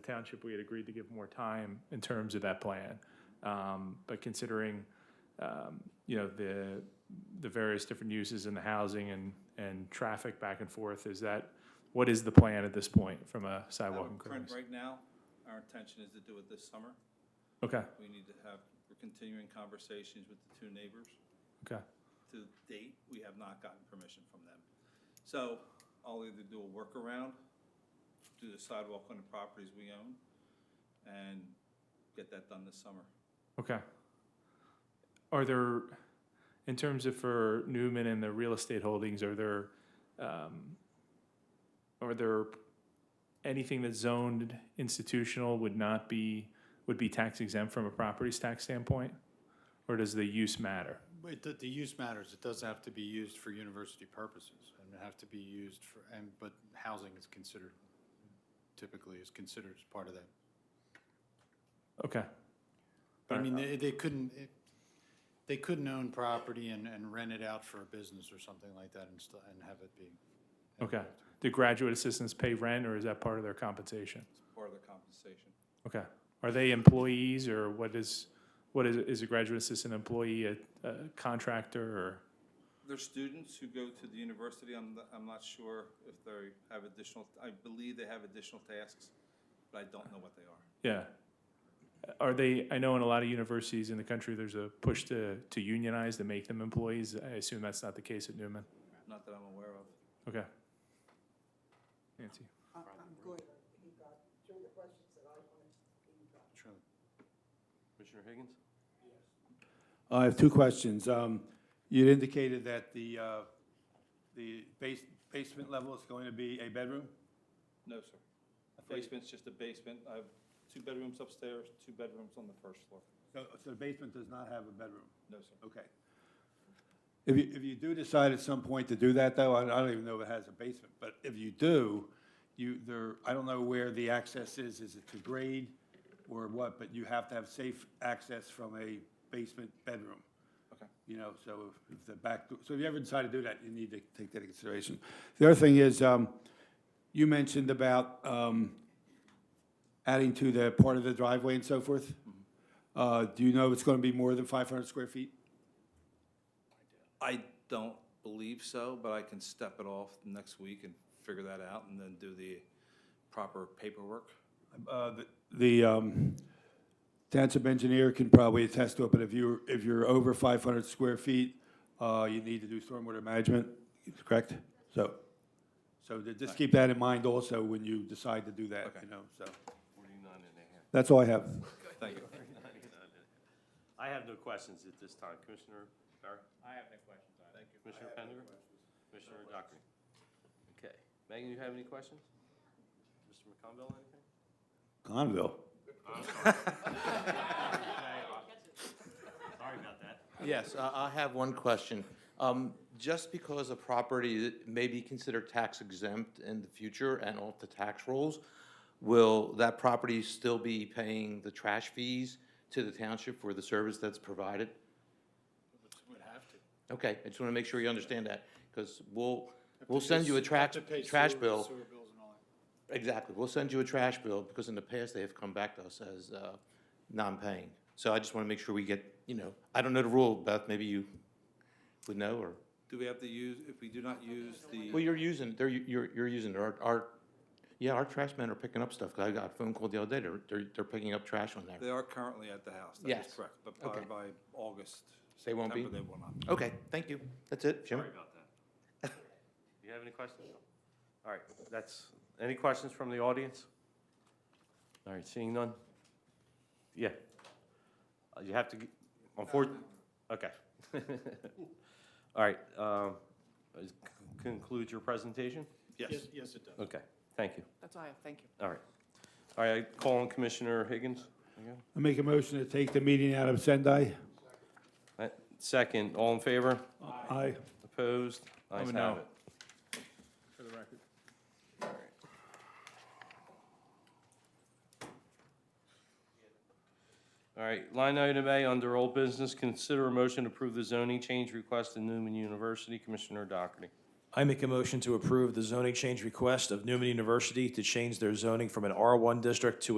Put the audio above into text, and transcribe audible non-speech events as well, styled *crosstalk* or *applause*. the township, we had agreed to give more time in terms of that plan. Um, But considering, um, you know, the, the various different uses in the housing and, and traffic back and forth, is that, what is the plan at this point from a sidewalk Our current- improvements? Right now, our intention is to do it this summer. Okay, We need to have, we're continuing conversations with the two neighbors. okay, To date, we have not gotten permission from them. So I'll either do a workaround, do the sidewalk on the properties we own, and get that done this summer. okay. Are there, in terms of for Newman and the real estate holdings, are there, um, are there anything that's zoned institutional would not be, would be tax exempt from a properties tax standpoint? Or does the use matter? It, the, the use matters. It does have to be used for university purposes and it have to be used for, and, but housing is considered, typically is considered as part of that. Okay, But I mean, they, they couldn't, it- they couldn't own property and, and rent it out for a business or something like that and still, and have it be. okay. Do graduate assistants pay rent or is that part of their compensation? It's part of the compensation. Okay. Are they employees or what is, what is, is a graduate assistant employee a, a contractor or? There's students who go to the university, I'm, not- I'm not sure if they have additional, I believe they have additional tasks, but I don't know what they are. Yeah. Are they, I know in a lot of universities in the country, there's a push to, to unionize, to make them employees. I assume that's not the case at Newman. Not that I'm aware of. Okay. Nancy? I- I'm good. He got two of the questions that I wanted. He got Sure. Commissioner Higgins? I have two questions. Um, You'd indicated that the, uh, the base basement level is going to be a bedroom? No, sir. Basement's just a basement. I have two bedrooms upstairs, two bedrooms on the first floor. So so the basement does not have a bedroom? No, sir. Okay. If you, if you do decide at some point to do that, though, I I don't even know if it has a basement, but if you do, you, there, I don't know where the access is, is it to grade or what, but you have to have safe access from a basement bedroom. Okay. You know, so if- if the back, door- so if you ever decide to do that, you need to take that into consideration. The other thing is, um, you mentioned about, um, adding to the part of the driveway and so forth. Mm-hmm. Uh, do you know if it's gonna be more than five hundred square feet? I don't believe so, but I can step it off next week and figure that out and then do the proper paperwork. Uh, the- The um, township engineer can probably attest to it, but if you're, if you're over 500 square feet, uh, you need to do stormwater management, correct? So, so ju- just keep that in mind also when you decide to do that, Okay. you know, so. Forty-nine and a half. *laughs* That's all I have. Thank you. I have no questions at this time. Commissioner Barry? I have no questions. Thank you. Commissioner Pender? Commissioner Dockery? Okay. Megan, you have any questions? Mr. McConville, anything? Conville. Sorry about that. Yes, I I have one question. Um, Just because a property may be considered tax exempt in the future and off the tax rolls, will that property still be paying the trash fees to the township for the service that's provided? Would have to. Okay, I just want to make sure you understand that, because we'll, we'll send you a trash, trash bill. Exactly. We'll send you a trash bill because in the past, they have come back to us as uh, non-paying. So I just want to make sure we get, you know, I don't know the rule, Beth, maybe you would know or, Do we have to use, if we do not use well, the, you're using, they're, you're, you're using, our, our, yeah, our trash men are picking up stuff. 'cause I got a phone call the other day. They're, they're, they're picking up trash on there. they are currently at the house. That is Yes. correct, but probably Okay. by August. They won't be? September, They will not. Okay, thank you. That's it, Jim. Sorry about that. You have any questions? All right, that's, any questions from the audience? All right, seeing none? Yeah. Uh, You have to, g- unfortunately, okay. *laughs* All right, um, is- conclude your presentation? Yes. Yes, it does. Okay, thank you. That's all I have, thank you. All right. All right, I call on Commissioner Higgins. again. I make a motion to take the meeting out of Sendai. Uh, Second, all in favor? Aye. Opposed? a Ayes no. have it. For the record. All right, line item A, under old business, consider a motion to approve the zoning change request in Newman University. Commissioner Doherty. I make a motion to approve the zoning change request of Newman University to change their zoning from an R1 district to an